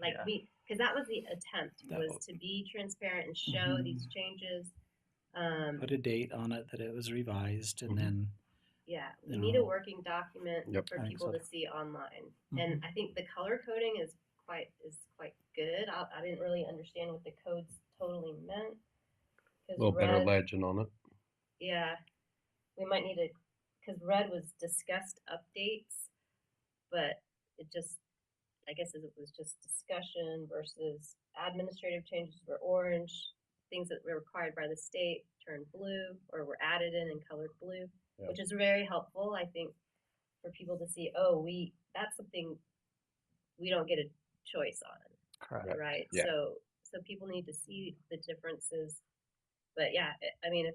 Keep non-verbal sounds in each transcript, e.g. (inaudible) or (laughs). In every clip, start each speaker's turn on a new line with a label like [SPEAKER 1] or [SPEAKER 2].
[SPEAKER 1] Like
[SPEAKER 2] Yeah.
[SPEAKER 1] we, because that was the attempt
[SPEAKER 3] That
[SPEAKER 1] was
[SPEAKER 3] was- Mm-hmm.
[SPEAKER 1] to be transparent and show these changes. Um,
[SPEAKER 3] Put a date on it that it was revised and
[SPEAKER 4] Mhm.
[SPEAKER 3] then,
[SPEAKER 1] yeah, we
[SPEAKER 3] you
[SPEAKER 1] need
[SPEAKER 3] know.
[SPEAKER 1] a working document
[SPEAKER 4] Yep.
[SPEAKER 1] for
[SPEAKER 3] I think
[SPEAKER 1] people
[SPEAKER 3] so. Mm-hmm.
[SPEAKER 1] to see online, and I think the color coding is quite is quite good. I, I didn't really understand what the codes totally meant. 'cause
[SPEAKER 4] A little better
[SPEAKER 1] red-
[SPEAKER 4] legend on it.
[SPEAKER 1] Yeah, we might need to, because red was discussed updates, but it just, I guess it was just discussion versus administrative changes were orange. Things that were required by the state turned blue or were added in and colored blue,
[SPEAKER 4] Yeah.
[SPEAKER 1] which is very helpful, I think, for people to see, oh, we, that's something we don't get a choice on
[SPEAKER 3] correct.
[SPEAKER 4] Right,
[SPEAKER 1] right?
[SPEAKER 4] yeah.
[SPEAKER 1] So so people need to see the differences. But yeah, I- I mean, if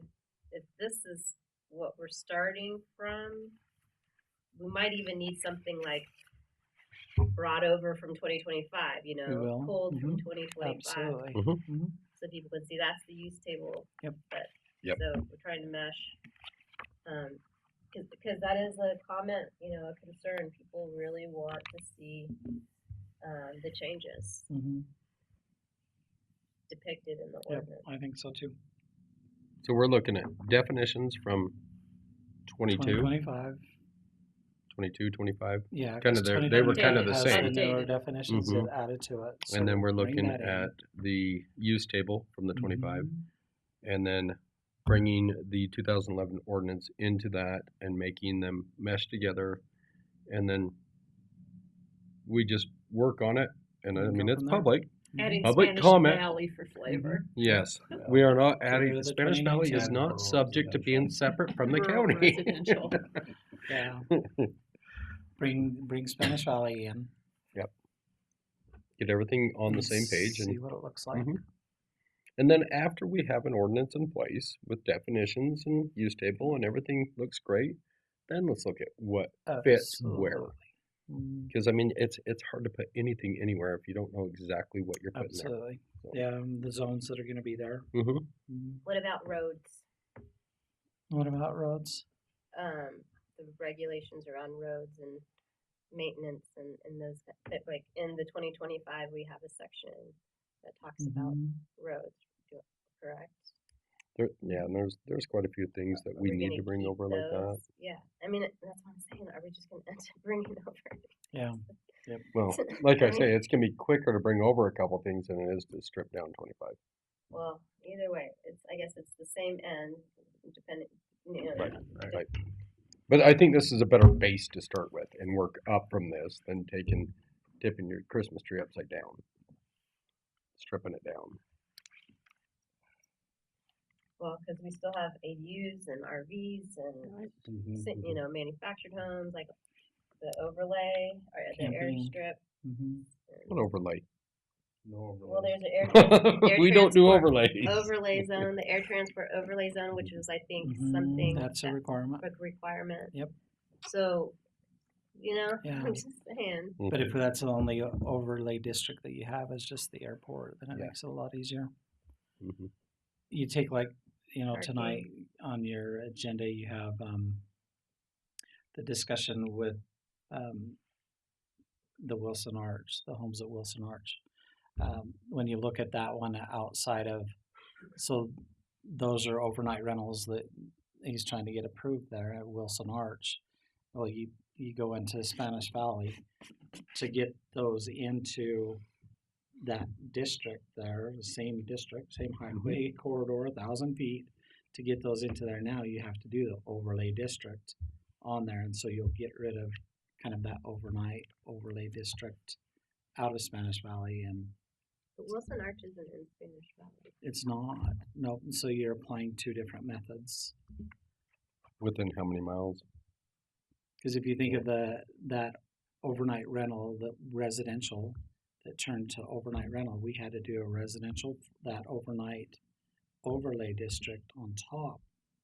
[SPEAKER 1] if this is what we're starting from, we might even need something like brought over from 2025. You know,
[SPEAKER 3] will,
[SPEAKER 1] pulled from
[SPEAKER 3] mhm,
[SPEAKER 1] 2025,
[SPEAKER 3] Absolutely.
[SPEAKER 4] Mhm.
[SPEAKER 3] Mhm.
[SPEAKER 1] so people can see that's the use table.
[SPEAKER 3] Yep.
[SPEAKER 1] But
[SPEAKER 4] Yep.
[SPEAKER 1] so we're trying to mesh. Um, because because that is a comment, you know, a concern. People really want to see um, the changes
[SPEAKER 3] Mhm.
[SPEAKER 1] depicted in the
[SPEAKER 3] Yep, Mm-hmm.
[SPEAKER 1] ordinance.
[SPEAKER 3] I think so too.
[SPEAKER 4] So we're looking at definitions from 22,
[SPEAKER 3] 2025,
[SPEAKER 4] 22, 25,
[SPEAKER 3] yeah.
[SPEAKER 4] Kinda
[SPEAKER 3] 'cause
[SPEAKER 4] they're- they were
[SPEAKER 3] 2025
[SPEAKER 1] kinda the
[SPEAKER 3] has
[SPEAKER 1] same.
[SPEAKER 3] newer
[SPEAKER 1] Updated.
[SPEAKER 3] definitions
[SPEAKER 4] Mhm.
[SPEAKER 3] that added to it. so
[SPEAKER 4] and then we're
[SPEAKER 3] bring
[SPEAKER 4] looking
[SPEAKER 3] that in.
[SPEAKER 4] at the use table from the 25,
[SPEAKER 3] Mhm.
[SPEAKER 4] and then bringing the 2011 ordinance into that and making them mesh together, and then we just work on it. And I
[SPEAKER 3] And
[SPEAKER 4] mean,
[SPEAKER 3] go
[SPEAKER 4] it's
[SPEAKER 3] from there.
[SPEAKER 4] public.
[SPEAKER 3] mm-hmm.
[SPEAKER 5] Adding
[SPEAKER 4] Public
[SPEAKER 5] Spanish
[SPEAKER 4] comment.
[SPEAKER 5] Valley for flavor.
[SPEAKER 4] Yes, we (laughs) are not
[SPEAKER 3] Get rid
[SPEAKER 4] adding.
[SPEAKER 3] of the
[SPEAKER 4] Spanish
[SPEAKER 3] 28
[SPEAKER 4] Valley is
[SPEAKER 3] and
[SPEAKER 4] not
[SPEAKER 2] rural
[SPEAKER 4] subject to being separate
[SPEAKER 3] (laughs)
[SPEAKER 4] from the
[SPEAKER 5] Rural
[SPEAKER 4] county. (laughs)
[SPEAKER 5] Residential.
[SPEAKER 3] Yeah. Bring, bring Spanish Valley in.
[SPEAKER 4] Get everything on the
[SPEAKER 3] and
[SPEAKER 4] same page and
[SPEAKER 3] See what it looks like.
[SPEAKER 4] Mhm. And then after we have an ordinance in place with definitions and use table and everything looks great, then let's look at what Mm-hmm. fits where.
[SPEAKER 3] Absolutely. Mm-hmm.
[SPEAKER 4] Because I mean, it's it's hard to put anything anywhere if you don't know exactly what you're putting
[SPEAKER 3] Absolutely.
[SPEAKER 4] So-
[SPEAKER 3] Yeah, and the zones that are gonna be there.
[SPEAKER 4] there. hmm
[SPEAKER 3] Mhm.
[SPEAKER 1] What about roads?
[SPEAKER 3] What about roads?
[SPEAKER 1] Um, the regulations around roads and maintenance and, and those, that- that, like, in the twenty twenty-five, we have a section that talks about
[SPEAKER 3] Mhm.
[SPEAKER 1] roads, do- correct?
[SPEAKER 4] There, yeah, and there's there's quite a few things that
[SPEAKER 1] Are
[SPEAKER 4] we
[SPEAKER 1] we
[SPEAKER 4] need
[SPEAKER 1] gonna
[SPEAKER 4] to bring
[SPEAKER 1] keep
[SPEAKER 4] over like that.
[SPEAKER 1] those? Yeah, I mean, it- that's what I'm saying, are we just gonna end up (laughs) bringing over?
[SPEAKER 3] Yeah,
[SPEAKER 4] Well, like I
[SPEAKER 1] Right.
[SPEAKER 4] say, it's gonna be quicker to bring over a couple things than it is to strip down 25.
[SPEAKER 1] Well, either way, it's, I guess it's the same end, depending, you know,
[SPEAKER 4] Right, right. But I think this is a better base to start with and work up from this than taking, tipping your Christmas tree upside down. Stripping it down.
[SPEAKER 1] well, cause we still have ADUs and RVs and
[SPEAKER 4] Mm-hmm,
[SPEAKER 1] si- you know, manufactured homes, like the overlay or the
[SPEAKER 3] Camping.
[SPEAKER 1] airstrip.
[SPEAKER 3] mhm.
[SPEAKER 4] What mm-hmm. overlay?
[SPEAKER 1] Well, there's an air
[SPEAKER 4] (laughs)
[SPEAKER 1] trans- air
[SPEAKER 4] We don't do
[SPEAKER 1] transport
[SPEAKER 4] overlays.
[SPEAKER 1] overlay zone, the air transport overlay zone, which was, I think,
[SPEAKER 4] Mm-hmm.
[SPEAKER 3] Mhm,
[SPEAKER 1] something
[SPEAKER 3] That's a
[SPEAKER 1] that-
[SPEAKER 3] requirement.
[SPEAKER 1] a requirement.
[SPEAKER 3] Yep.
[SPEAKER 1] So, you know, (laughs)
[SPEAKER 3] Yeah.
[SPEAKER 1] I'm just saying,
[SPEAKER 3] But if that's the only o- overlay district that you have is just the airport, then it
[SPEAKER 4] Yeah.
[SPEAKER 3] makes it a lot easier.
[SPEAKER 4] Mhm.
[SPEAKER 3] You take like, you know,
[SPEAKER 1] Parking.
[SPEAKER 3] tonight on your agenda, you have, um, the discussion with, um, the Wilson Arch, the homes at Wilson Arch. Um, when you look at that one outside of, so those are overnight rentals that he's trying to get approved there at Wilson Arch. Well, you, you go into Spanish Valley to get those into that district there, the same district, same highway corridor, a thousand feet. To get those into there now, you have to do the overlay district on there, and so you'll get rid of kind of that overnight overlay district out of Spanish Valley, and
[SPEAKER 1] but Wilson Arch isn't in Spanish Valley.
[SPEAKER 3] it's not, no, so you're applying two different methods.
[SPEAKER 4] Within how many miles?
[SPEAKER 3] Because if you think of the, that overnight rental, the residential that turned to overnight rental, we had to do a residential, that overnight overlay district on top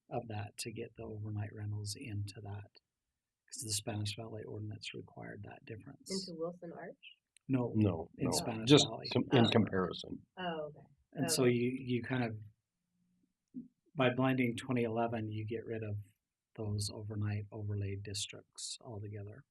[SPEAKER 3] of that to get the overnight rentals into that. Because the Spanish Valley ordinance required that difference.
[SPEAKER 1] Into Wilson Arch?
[SPEAKER 3] No,
[SPEAKER 4] No,
[SPEAKER 3] In
[SPEAKER 4] no,
[SPEAKER 3] Spanish
[SPEAKER 4] just
[SPEAKER 3] Valley.
[SPEAKER 4] com- in
[SPEAKER 1] Oh.
[SPEAKER 4] comparison.
[SPEAKER 1] Oh, okay.
[SPEAKER 3] and so you, you kind of, by blending twenty eleven, you get rid of those overnight overlay districts altogether.